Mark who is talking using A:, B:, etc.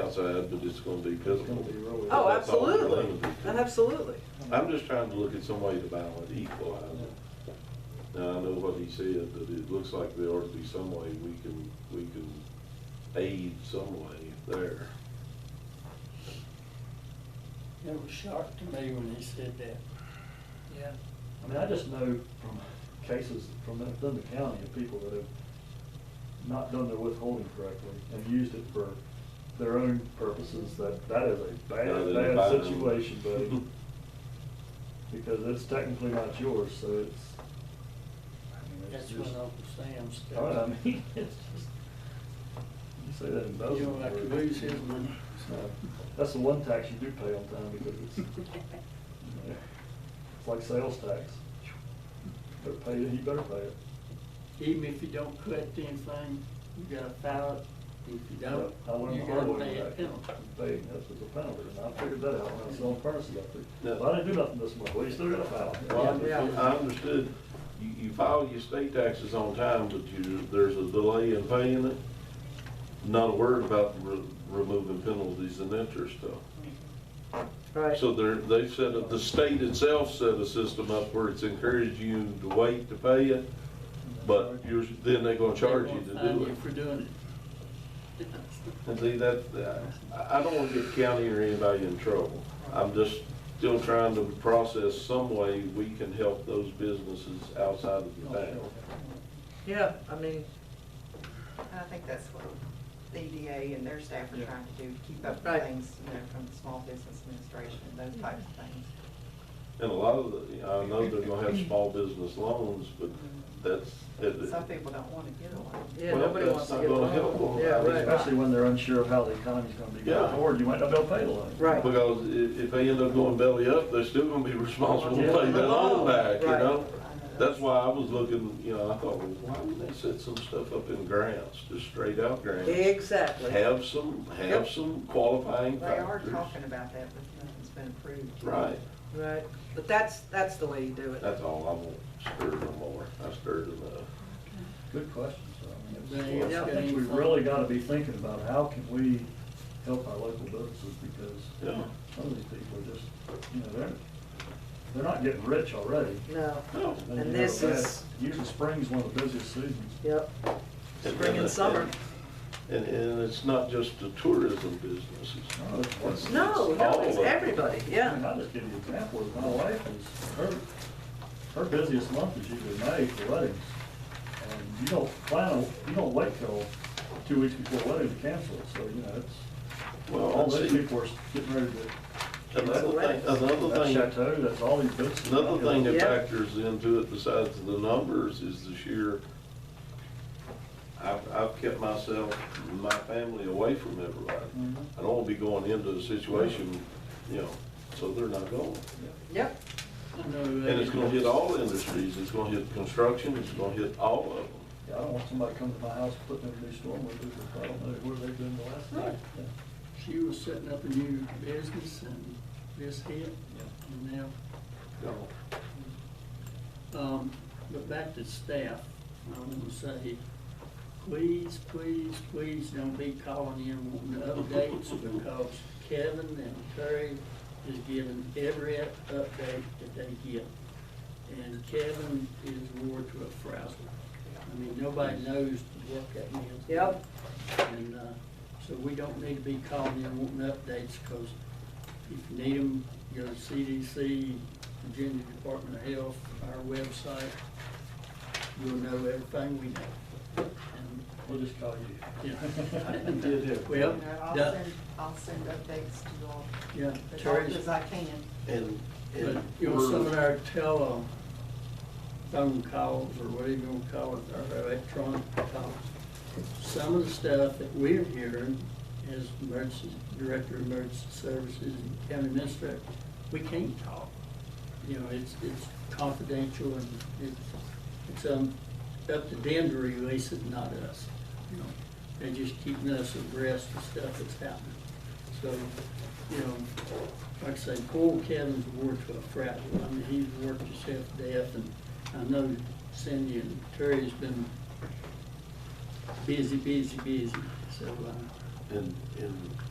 A: outside, but it's gonna be physical.
B: Oh,
A: That's all we're
B: absolutely,
A: gonna do.
B: absolutely.
A: I'm just trying to look at some way to balance, equalize it. Now, I know what he said, but it looks like there ought to be some way we can, we can aid some way there.
C: It was shocked to me when he said that. Yeah. I mean, I just know from cases from Thunder County of people that have not done their withholding correctly and used it for their own purposes, that, that is a
A: Rather
C: bad,
A: than
C: bad
A: buying-
C: situation, buddy. Because it's technically not yours, so it's. I mean, it's
D: That's when
C: just-
D: Uncle Sam's.
C: You know what I mean, it's just, you say that in those.
D: You don't like to
C: words.
D: lose his money.
C: No. That's the one tax you do pay on time because it's, it's like sales tax. Better pay it, you better pay it.
D: Even if you don't collect anything, you gotta file it. If you don't,
C: I learned
D: you
C: the hard
D: gotta
C: way
D: pay a
C: that,
D: penalty.
C: pay, that's what's a penalty, and I figured that out when I was selling furnaces up
A: Yeah.
C: there. If I didn't do nothing this month, well, you still gotta file.
A: Well, I
C: it.
A: understood- I understood, you, you file your state taxes on time, but you, there's a delay in paying it. Not a word about re- removing penalties and interest though.
B: Right.
A: So they're, they've set up, the state itself set a system up where it's encouraged you to wait to pay it, but you're, then they're gonna charge you
D: They
A: to
D: won't fine
A: do
D: you
A: it.
D: For doing it.
A: And see, that, I, I don't wanna get county or anybody in trouble. I'm just still trying to process some way we can help those businesses outside of the town.
B: Yeah, I mean,
E: I think that's what the EDA and their staff are
C: Yeah.
E: trying to do, to keep up
B: Right.
E: with things, you know, from the small business administration, those types of things.
A: And a lot of the, I know they're gonna have small business loans, but that's, it-
E: Some people don't want to get a loan.
B: yeah,
A: Well,
B: nobody
A: that's
B: wants to
A: not
B: get
A: gonna
B: along.
A: help.
B: Yeah, right.
C: Especially when they're unsure of how the economy's gonna be going
A: Yeah.
C: forward, you might not be able to pay the loan.
B: Right.
A: Because if, if they end up going belly up, they're still gonna be responsible
C: Yeah.
A: to pay that loan back, you
B: Right.
A: know? That's why I was looking, you know, I thought, well, why wouldn't they set some stuff up in grants, just straight out grants?
B: Exactly.
A: Have some, have
B: Yep.
A: some qualifying
E: They are
A: factors.
E: talking about that, but nothing's been approved.
A: Right,
B: Right. But that's, that's the way you do it.
A: that's all, I won't stir no more, I stirred enough.
C: Good question, so I mean,
D: Yeah.
C: it's- I think we really gotta be thinking about how can we help our local businesses because
A: Yeah,
C: some of these people are just, you know, they're, they're not getting rich already.
B: No,
A: no.
C: They
B: And
C: have
B: this
C: that-
B: is-
C: Usually spring's one of the busiest seasons.
B: yep, spring and summer.
A: And, and it's not just the tourism businesses.
C: No, it's- it's-
B: No, no, it's
A: All of it.
B: everybody,
C: I mean,
B: yeah.
C: I'll just give you an example, of my wife is, her, her busiest month is usually May for weddings. And you don't plan, a- you don't wait till two weeks before wedding to cancel it, so, you know, it's,
A: Well,
C: all
A: and
C: those
A: see,
C: people are getting ready to
A: Another thing, another
C: That
A: thing.
C: chateau, that's all these businesses.
A: Another thing that
B: Yeah.
A: factors into it besides the numbers is the sheer, I've, I've kept myself, and my family away from everybody.
C: Mhm.
A: I don't wanna be going into a situation, you know, so they're not going.
B: Yep,
D: I know, uh,
A: And it's gonna hit all industries, it's gonna hit construction, it's gonna hit all of them.
C: Yeah, I don't want somebody coming to my house putting in new storm windows, if I don't know where they've been the last night.
D: She was setting up a new business and this hit, and now
A: No.
D: Um, but back to staff, I want to say, please, please, please don't be calling in wanting updates because Kevin and Terry is giving every update that they get. And Kevin is more to a frazzle. I mean, nobody knows what that means.
B: Yep.
D: And, uh, so we don't need to be calling in wanting updates because if you need them, go to CDC, Virginia Department of Health, our website. You'll know everything we know.
C: We'll just call you.
D: And, yeah. Well,
E: You know, I'll
D: yeah,
E: send, I'll send updates to you all
D: yeah,
E: as
D: Terry's,
E: often as I can.
A: And,
D: but
A: and
D: you know, some of
A: we're,
D: our tele, phone calls or whatever you wanna call it, our electronic calls. Some of the stuff that we're hearing as emergency, director of emergency services and county administrator, we can't talk. You know, it's, it's confidential and it's, it's, um, up to them to release it, not us. You know, they're just keeping us abreast of stuff that's happening. So, you know, like I say, poor Kevin's worked to a frazzle. I mean, he's worked himself to death and I know Cindy and Terry's been busy, busy, busy. So, uh,
A: and, and